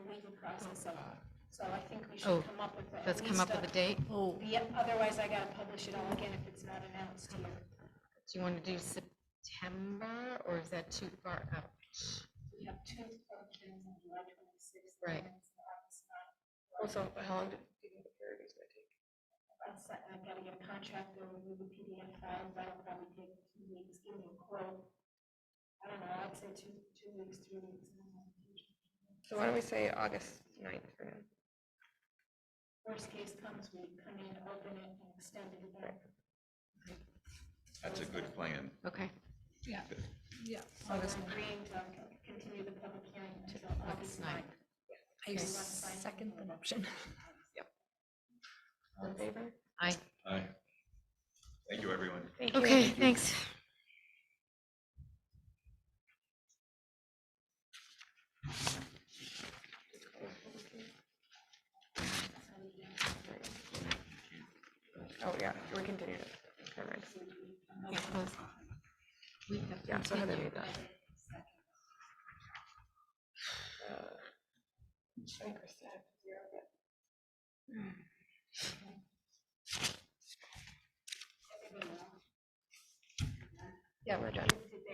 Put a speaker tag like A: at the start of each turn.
A: process of. So I think we
B: Oh,
A: should come up with. at
B: Let's come up
A: least
B: with a date.
C: Oh,
A: Yep, otherwise I gotta publish it all again if it's not announced here.
B: Do you want to do September or is that too far out?
A: We have two functions on July twenty-sixth.
B: Right.
D: Also, how long do you think the period is gonna take?
A: I've gotta get a contractor, review the PDF files, that'll probably take two weeks, give me a quote. I don't know, I'd say two, two weeks, three weeks. and then I'll do it.
D: So why don't we say August ninth for now?
A: Worst case comes, we come in, open it, and extend it again.
E: That's a good plan.
B: Okay,
C: yeah, yeah.
A: So we're agreeing to continue the public hearing until
B: August
A: August
B: 9th.
A: ninth.
C: I second the motion.
D: All in favor?
B: Aye.
E: Aye. Thank you, everyone.
D: Thank you.
B: Okay, thanks.
D: Oh, yeah, we continued it. Never mind.
B: Yeah, close. We have
D: Yeah, so Heather made
B: continued.
D: that. Uh, I think Krista had zero, but Yeah, we're done.